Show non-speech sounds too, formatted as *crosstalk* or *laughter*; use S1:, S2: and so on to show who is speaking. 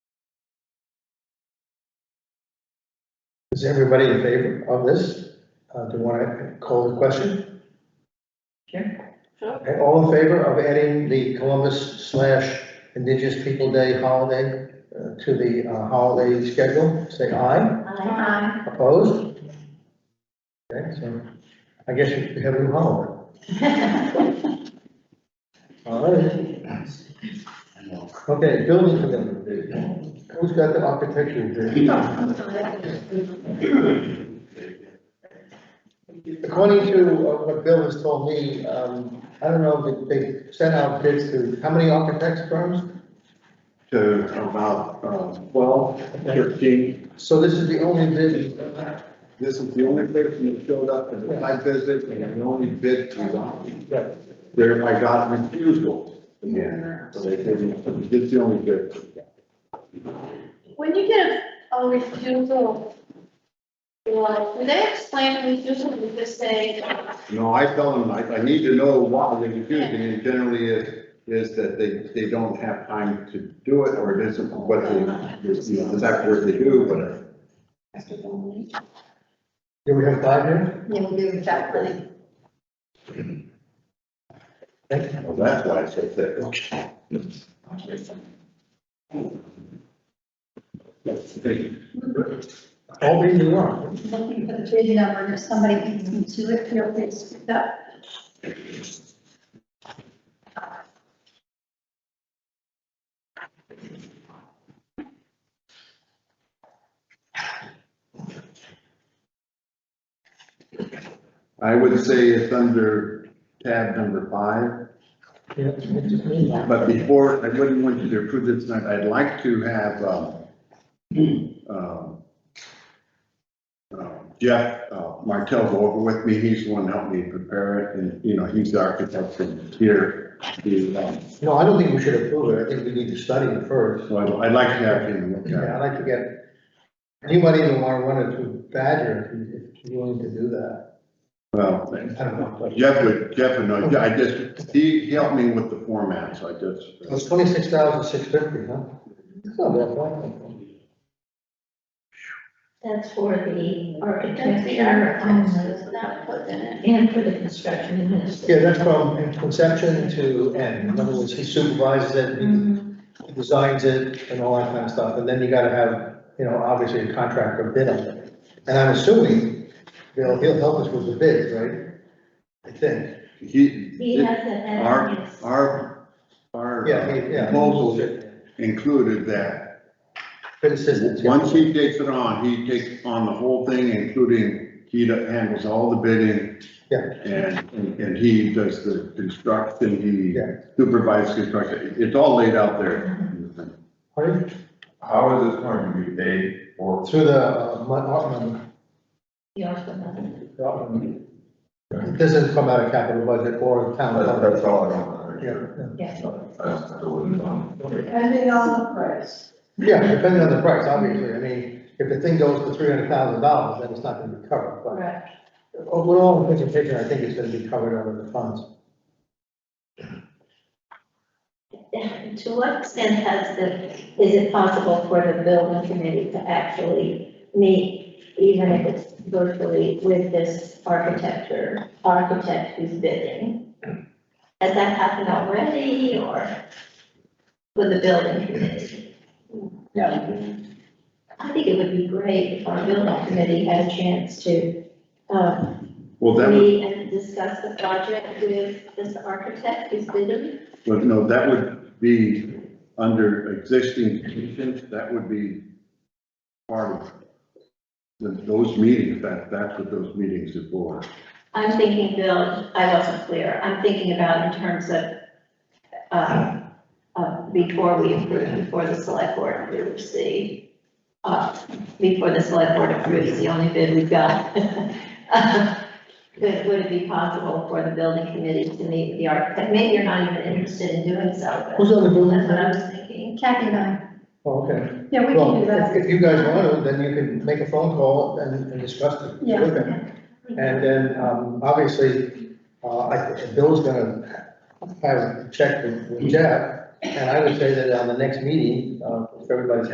S1: Is everybody in favor of this? Uh, do you want to call the question?
S2: Sure.
S1: Okay, All in favor of adding the Columbus slash Indigenous People Day holiday uh, to the uh, holiday schedule? Say aye.
S2: Aye.
S1: Opposed? Okay, so I guess we have a new holiday. All right. Okay, building committee. Who's got the architecture? According to uh, what Bill has told me, um, I don't know, if they sent out bids to, how many architects firms?
S3: to about um, twelve, thirteen.
S1: So this is the only bid,
S3: This is the only person that showed up at the site visit and the only bid to
S1: Yeah.
S3: the. There, I got refusal. Yeah. So they didn't, it's the only bid.
S2: When you get a refusal, like, do they explain the refusal, do they say,
S3: No, I tell them, I, I need to know why they're refusing, and it generally is, is that they, they don't have time to do it, or it isn't what they, you know, the exact word they do, but.
S1: do we have five here?
S4: Yeah, we do, exactly.
S1: Thank you.
S3: Well, that's why I said that.
S1: All these are wrong.
S4: Looking for the bid number, and if somebody can into it, feel free to speak up.
S3: I would say it's under tab number five.
S1: Yeah, it just means that.
S3: But before, I wouldn't want you to approve this tonight, I'd like to have, um, *clears throat* um, um, Jeff uh, Martell go over with me, he's the one that helped me prepare it, and, you know, he's the architect from here. He, um,
S1: No, I don't think we should approve it, I think we need to study it first.
S3: So I'd, I'd like to have him look
S1: Yeah,
S3: at it.
S1: I'd like to get anybody in the one, one or two Badger, if you're willing to do that.
S3: Well,
S1: I don't know, but
S3: Jeff would, Jeff would know, I just, he, he helped me with the format, so I
S1: it
S3: just,
S1: was twenty-six thousand six fifty, huh? It's not that bad.
S5: That's for the
S2: that's
S5: architect
S2: the architects, isn't that put in it?
S5: and for the construction administrator.
S1: Yeah, that's from conception to end, in other words, he supervises it,
S5: Mm-hmm.
S1: he designs it, and all that kind of stuff, and then you gotta have, you know, obviously a contractor bid on it. And I'm assuming, Bill, he'll help us with the bids, right? I think,
S5: He
S3: he,
S5: has a head on
S3: our,
S5: his.
S3: our, our
S1: yeah, he, yeah.
S3: proposal included that
S1: Bid assistance. yeah.
S3: Once he takes it on, he takes on the whole thing, including, he handles all the bidding.
S1: Yeah.
S3: And, and he does the construction, he
S1: Yeah.
S3: supervises construction, it's all laid out there.
S1: Pardon?
S6: How is this going to be paid for?
S1: Through the, uh, mon- art mon-
S5: He also has
S1: the art mon- it doesn't come out of capital budget or town.
S6: That's,
S1: budget.
S6: that's all I don't
S1: Yeah,
S6: know.
S1: yeah.
S6: I just don't know.
S4: Depending on the price.
S1: Yeah, depending on the price, obviously, I mean, if the thing goes for three hundred thousand dollars, then it's not gonna be covered, but.
S5: Correct.
S1: Overall, in picture, I think it's gonna be covered out of the funds.
S5: a- To what extent has the, is it possible for the building committee to actually meet, even if it's virtually with this architecture, architect who's bidding? Has that happened already or with the building committee? No. I think it would be great if our building committee had a chance to, um,
S3: Well, that would,
S5: meet and discuss the project with this architect who's bidding?
S3: but no, that would be under existing conditions, that would be part of the- those meetings, that, that's what those meetings are for.
S5: I'm thinking, Bill, I wasn't clear, I'm thinking about in terms of, uh, uh, before we approve, before the select board approves the, uh, before the select board approves the only bid we've got. *laughs* Would, would it be possible for the building committee to meet with the architect? Maybe you're not even interested in doing so, but
S1: Who's on the building?
S5: that's what I was thinking.
S4: Kathy and I,
S1: Oh, okay.
S4: yeah, we can
S1: Well,
S4: do that.
S1: if if you guys want to, then you can make a phone call and, and discuss it.
S4: Yeah.
S1: with them. And then, um, obviously, uh, I, Bill's gonna have a check with with Jeff, and I would say that on the next meeting, uh, if everybody's